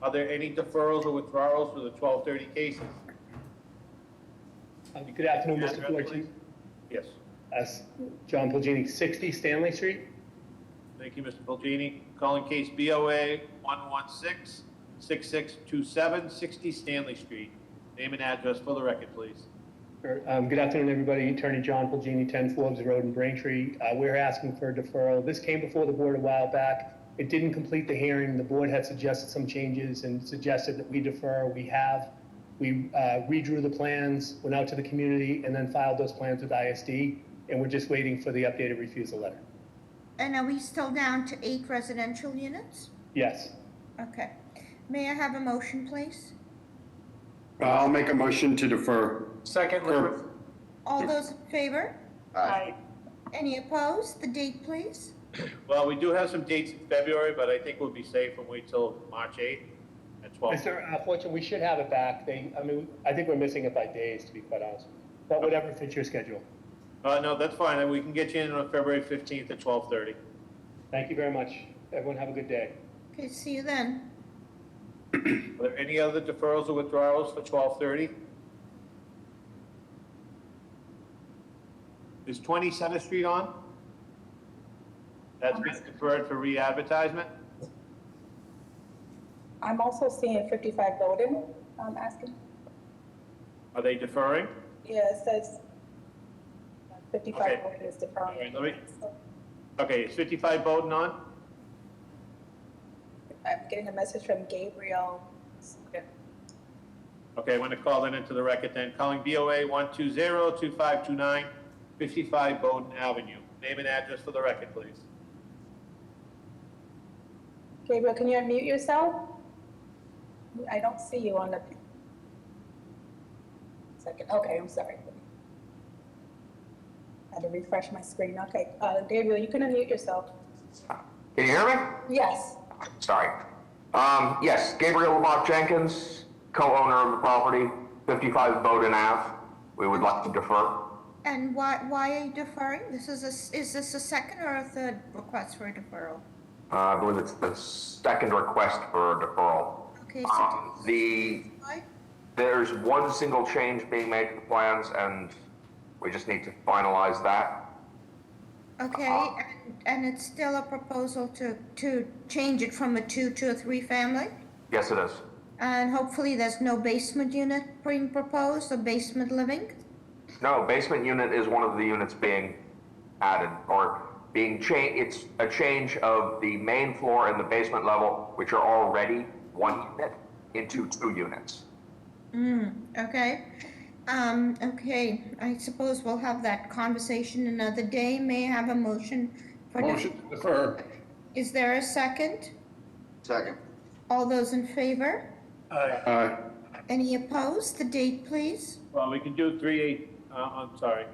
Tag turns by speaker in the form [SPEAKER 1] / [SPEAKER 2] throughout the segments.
[SPEAKER 1] Are there any deferrals or withdrawals for the 1230 cases?
[SPEAKER 2] Uh, Good afternoon,
[SPEAKER 1] Address,
[SPEAKER 2] Mr. Forte.
[SPEAKER 1] please. Yes.
[SPEAKER 2] That's John Pulgini, 60 Stanley Street.
[SPEAKER 1] Thank you, Mr. Bulgini. Calling case BOA 116-6627, 60 Stanley Street. Name and address for the record, please.
[SPEAKER 2] Er, um, Good afternoon, everybody. Attorney John Pulgini, 10 Forbes Road in Braintree. Uh, We're asking for a deferral. This came before the board a while back. It didn't complete the hearing. The board had suggested some changes and suggested that we defer. We have. We uh, redrew the plans, went out to the community, and then filed those plans with ISD, and we're just waiting for the updated refusal letter.
[SPEAKER 3] And are we still down to eight residential units?
[SPEAKER 2] Yes.
[SPEAKER 3] Okay. May I have a motion, please?
[SPEAKER 4] Uh, I'll make a motion to defer.
[SPEAKER 5] Second, liquid.
[SPEAKER 3] All those in favor?
[SPEAKER 5] Aye.
[SPEAKER 3] Any opposed? The date, please?
[SPEAKER 1] Well, we do have some dates in February, but I think we'll be safe and wait till March 8th at 12.
[SPEAKER 2] Mr. uh, Fortune, we should have it back. They, I mean, I think we're missing it by days, to be quite honest. But whatever fits your schedule.
[SPEAKER 1] Uh, no, that's fine. We can get you in on February 15th at 1230.
[SPEAKER 2] Thank you very much. Everyone have a good day.
[SPEAKER 3] Okay, see you then.
[SPEAKER 1] Are there any other deferrals or withdrawals for twelve thirty? Is twenty Center Street on? That's been deferred for re-advertisement?
[SPEAKER 6] I'm also seeing 55 Bowden, I'm asking.
[SPEAKER 1] Are they deferring?
[SPEAKER 6] Yeah, it says 55
[SPEAKER 1] Okay.
[SPEAKER 6] Bowden is
[SPEAKER 1] All right,
[SPEAKER 6] deferred.
[SPEAKER 1] let me, okay, is fifty-five Bowden on?
[SPEAKER 6] I'm getting a message from Gabriel.
[SPEAKER 1] Okay, I'm gonna call that into the record then. Calling BOA 120-2529, 55 Bowden Avenue. Name and address for the record, please.
[SPEAKER 6] Gabriel, can you unmute yourself? I don't see you on the. Second, okay, I'm sorry. Had to refresh my screen, okay. Uh, Gabriel, you can unmute yourself.
[SPEAKER 7] Can you hear me?
[SPEAKER 6] Yes,
[SPEAKER 7] Sorry. Um, yes, Gabriel Lamont Jenkins, co-owner of the property, 55 Bowden Ave. We would like to defer. Uh,
[SPEAKER 3] And why, why are you deferring? This is a, s- is this a second or a third request for a deferral?
[SPEAKER 7] Uh, I believe it's the second request for a deferral.
[SPEAKER 3] Okay, so,
[SPEAKER 7] Um, the,
[SPEAKER 3] why?
[SPEAKER 7] there's one single change being made to the plans and we just need to finalize that.
[SPEAKER 3] okay,
[SPEAKER 7] Uh-huh.
[SPEAKER 3] and, and it's still a proposal to, to change it from a two to a three family?
[SPEAKER 7] Yes, it is.
[SPEAKER 3] And hopefully there's no basement unit being proposed or basement living?
[SPEAKER 7] No, basement unit is one of the units being added or being changed. It's a change of the main floor and the basement level, which are already one unit, into two units.
[SPEAKER 3] Okay, um, okay, I suppose we'll have that conversation another day. May I have a motion? for def-
[SPEAKER 4] Motion to defer.
[SPEAKER 3] Is there a second?
[SPEAKER 4] Second.
[SPEAKER 3] All those in favor?
[SPEAKER 4] Aye.
[SPEAKER 3] Any opposed? The date, please.
[SPEAKER 1] Well, we can do three eight, uh, I'm sorry,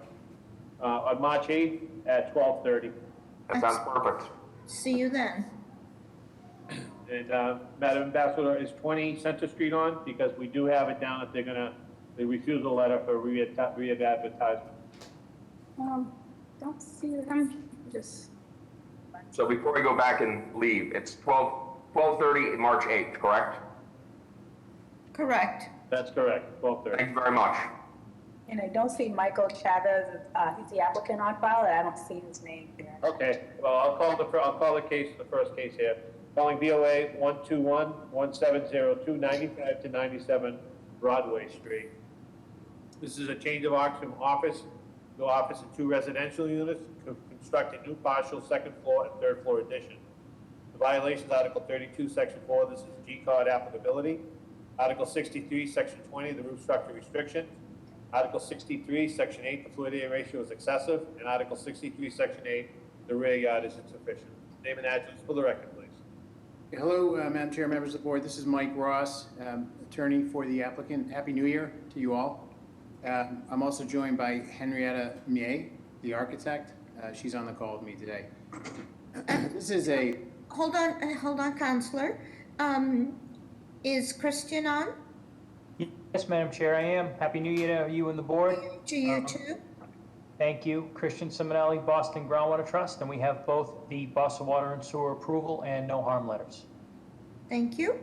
[SPEAKER 1] uh, on March eighth at twelve thirty.
[SPEAKER 7] That sounds perfect.
[SPEAKER 3] See you then.
[SPEAKER 1] And, uh, Madam Ambassador, is 20 Center Street on? Because we do have it down that they're gonna, the refusal letter for re-adver- re-advertisement.
[SPEAKER 6] um, don't see them, just.
[SPEAKER 7] So before we go back and leave, it's 12, 12:30, March 8th, correct?
[SPEAKER 3] Correct.
[SPEAKER 1] That's correct, 12:30.
[SPEAKER 7] Thank you very much.
[SPEAKER 6] And I don't see Michael Chavez, uh, he's the applicant on file, and I don't see his name here.
[SPEAKER 1] Okay, well, I'll call the, fir- I'll call the case, the first case here. Calling BOA 121-1702, 95 to 97 Broadway Street. This is a change of occupancy from office, to office and two residential units, to construct a new partial second floor and third floor addition. The violation is Article 32, Section 4, this is G-card applicability. Article 63, Section 20, the roof structure restriction. Article 63, Section 8, the floor area ratio is excessive. And Article 63, Section 8, the rear yard is insufficient. Name and address for the record, please.
[SPEAKER 5] Hello, uh, Madam Chair, members of the board. This is Mike Ross, um, attorney for the applicant. Happy New Year to you all. Um, I'm also joined by Henrietta Mie, the architect. Uh, She's on the call with me today. This is a,
[SPEAKER 3] Hold on, uh, hold on, Counselor. Um, is Christian on?
[SPEAKER 8] Yes, Madam Chair, I am. Happy New Year to you and the board.
[SPEAKER 3] To you too?
[SPEAKER 8] Thank you. Christian Simonelli, Boston Groundwater Trust, and we have both the Boston Water and Sewer approval and no harm letters.
[SPEAKER 3] Thank you.